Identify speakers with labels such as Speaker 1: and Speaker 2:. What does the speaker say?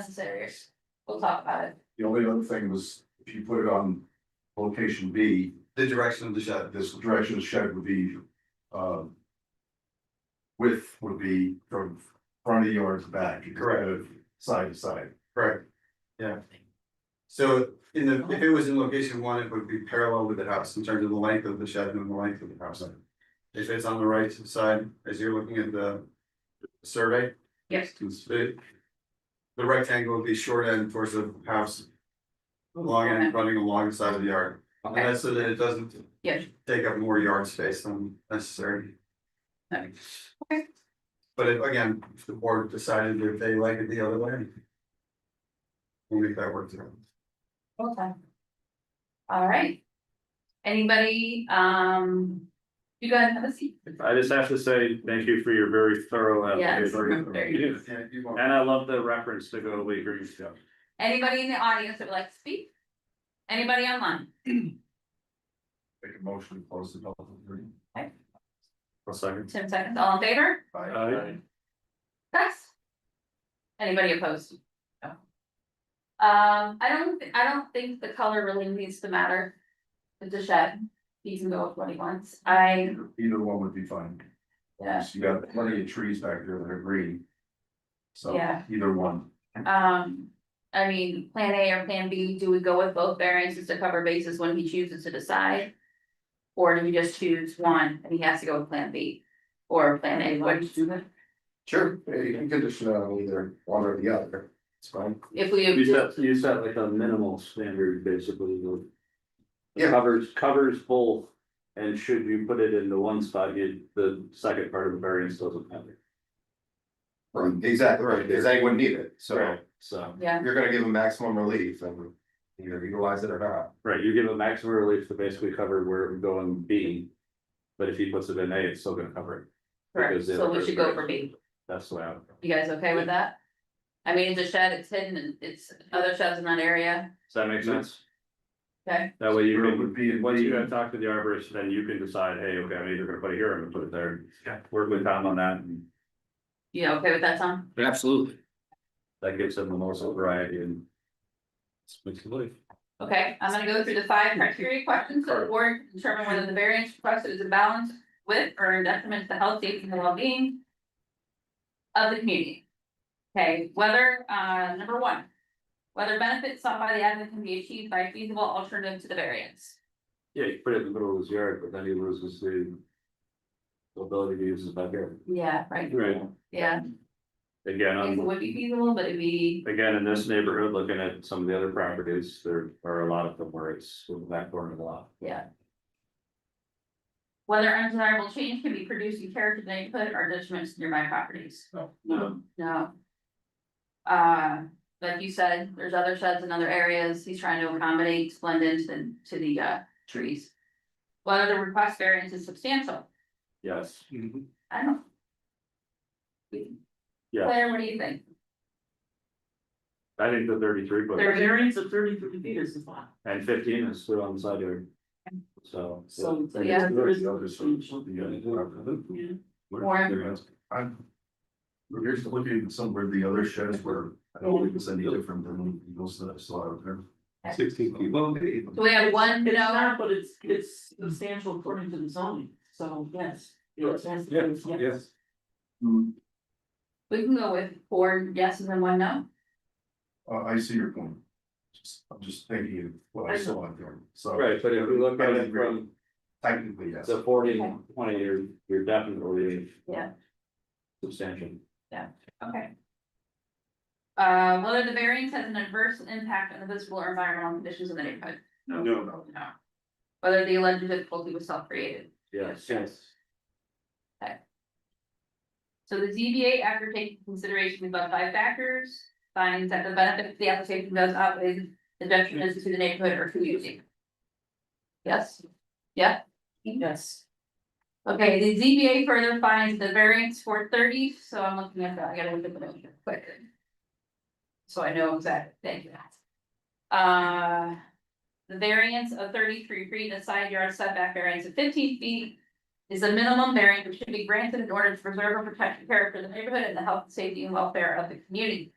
Speaker 1: necessary, we'll talk about it.
Speaker 2: The only other thing was, if you put it on location B,
Speaker 3: the direction of the shed.
Speaker 2: this direction of the shed would be, um. Width would be from front of the yard to back. instead
Speaker 3: Correct.
Speaker 2: of Side to side.
Speaker 3: Correct. Yeah. So in the, if it was in location one, it would be parallel with the house in terms of the length of the shed and the length of the house. If it's on the right side, as you're looking at the survey,
Speaker 1: Yes.
Speaker 3: it's the. The rectangle would be short end towards the house, long end running along the side of the yard, and
Speaker 1: Okay,
Speaker 3: that's so that it doesn't.
Speaker 1: Yes.
Speaker 3: Take up more yard space than necessary.
Speaker 1: Okay.
Speaker 3: But if- again, if the board decided that they like it the other way. We'll make that work through.
Speaker 1: okay. All right. Anybody, um, you guys have a seat?
Speaker 4: I just have to say, thank you for your very thorough
Speaker 1: Yes.
Speaker 4: application.
Speaker 1: There you go.
Speaker 3: Yeah, you won't.
Speaker 4: And I love the reference to go away green stuff.
Speaker 1: Anybody in the audience that would like to speak? Anybody online?
Speaker 2: Make a motion to close the public hearing.
Speaker 4: One second.
Speaker 1: Ten seconds, all in favor?
Speaker 4: Aye.
Speaker 1: Yes. Anybody opposed? No. Um, I don't, thi- I don't think the color really needs to matter. It's a shed, he can go with what he wants, I,
Speaker 2: Either one would be fine.
Speaker 1: Yeah.
Speaker 2: You got plenty of trees back there that are green. So
Speaker 1: Yeah.
Speaker 2: either one,
Speaker 1: um. I mean, plan A or plan B, do we go with both variances to cover bases when he chooses to decide? Or do we just choose one and he has to go with plan B or plan A, what do you do?
Speaker 5: Sure, yeah, you can condition it on either one or the other, it's fine.
Speaker 1: If we.
Speaker 4: You set, you set like a minimal standard, basically, you know.
Speaker 5: Yeah.
Speaker 4: Covers, covers both, and should you put it into one spot, you, the second part of the variance doesn't matter.
Speaker 5: Right, exactly, right, because they wouldn't need it, so
Speaker 4: So,
Speaker 1: Yeah,
Speaker 5: you're gonna give them maximum relief and either utilize it or not.
Speaker 4: right, you give a maximum relief to basically cover where it would go in B. But if he puts it in A, it's still gonna cover it,
Speaker 1: correct,
Speaker 4: Because the
Speaker 1: so we
Speaker 4: other
Speaker 1: should go
Speaker 4: person-
Speaker 1: for B.
Speaker 4: that's the way I would.
Speaker 1: You guys okay with that? I mean, it's a shed, it's hidden, and it's other sheds in that area,
Speaker 4: Does that make sense?
Speaker 1: Okay.
Speaker 4: That way you
Speaker 2: Where it
Speaker 4: can,
Speaker 2: would be in
Speaker 4: once you
Speaker 2: the-
Speaker 4: have talked to the arborist, then you can decide, hey, okay, I'm either gonna put it here or I'm gonna put it there.
Speaker 2: Yeah.
Speaker 4: Work with Tom on that, and
Speaker 1: you okay with that, Tom?
Speaker 6: Absolutely.
Speaker 4: that gives them the most variety and. Makes it live.
Speaker 1: Okay, I'm gonna go through the five criteria questions, so the board can determine whether the variance requested is in balance with or in detriment to the health, safety, and well-being. Of the community. Okay, whether, uh, number one. Whether benefits sought by the applicant can be achieved by a feasible alternative to the variance.
Speaker 4: Yeah, you put it in the middle of his yard, but then he loses the. the Ability to use his backyard.
Speaker 1: Yeah, right.
Speaker 4: Right.
Speaker 1: Yeah,
Speaker 4: Again,
Speaker 1: it
Speaker 4: um,
Speaker 1: would be feasible, but it'd be,
Speaker 4: again, in this neighborhood, looking at some of the other properties, there are a lot of them where it's in the back corner of the lot.
Speaker 1: yeah. Whether undesirable change can be produced in character, of the neighborhood, or detriment to nearby properties.
Speaker 4: Oh, No.
Speaker 1: No. Uh, like you said, there's other sheds in other areas, he's trying to accommodate, blend into the, to the, uh, trees. Whether the request variance is substantial,
Speaker 4: Yes,
Speaker 1: I don't.
Speaker 4: Yeah.
Speaker 1: Claire, what do you think?
Speaker 4: I think the thirty-three foot
Speaker 1: There-
Speaker 7: Their variance of thirty-three feet is the flat,
Speaker 4: and fifteen is still on the side yard. So.
Speaker 7: so.
Speaker 1: So, yeah.
Speaker 7: there is
Speaker 2: the
Speaker 7: no
Speaker 2: other
Speaker 7: change.
Speaker 2: uh, side.
Speaker 7: Yeah.
Speaker 1: Warren?
Speaker 2: I'm. We're just looking at some where the other sheds were, I don't think it's any different than those that I saw out there. Sixteen feet. Well, maybe.
Speaker 1: Do we have one,
Speaker 7: It's
Speaker 1: no,
Speaker 7: not, but it's, it's substantial according to the zoning, so yes. Yes, yes, yes.
Speaker 2: Hmm,
Speaker 1: we can go with four yeses and one no,
Speaker 2: Uh, I see your point. Just, I'm just thinking of what I saw out there, so.
Speaker 4: Right, but if we look at it from
Speaker 2: Technically, yes.
Speaker 4: the forty and twenty, you're, you're definitely.
Speaker 1: Yeah.
Speaker 4: Substantial.
Speaker 1: okay. Uh, whether the variance has an adverse impact on the visible or environmental conditions in the neighborhood,
Speaker 4: No.
Speaker 1: no. Whether the alleged difficulty was self-created.
Speaker 4: Yes.
Speaker 7: Yes.
Speaker 1: So the ZBA, after taking consideration of above five factors, finds that the benefit of the application does outweigh the detriment to the neighborhood or to using. Yes? Yeah?
Speaker 7: Yes.
Speaker 1: Okay, the ZBA further finds the variance for thirty, so I'm looking at that, I gotta look at the motion quick. So I know exactly, thank you. Uh, the variance of thirty-three feet, and a side yard setback variance of fifteen feet. Is the minimum variance which should be granted in order to preserve and protect the character of the neighborhood and the health, safety and welfare of the community.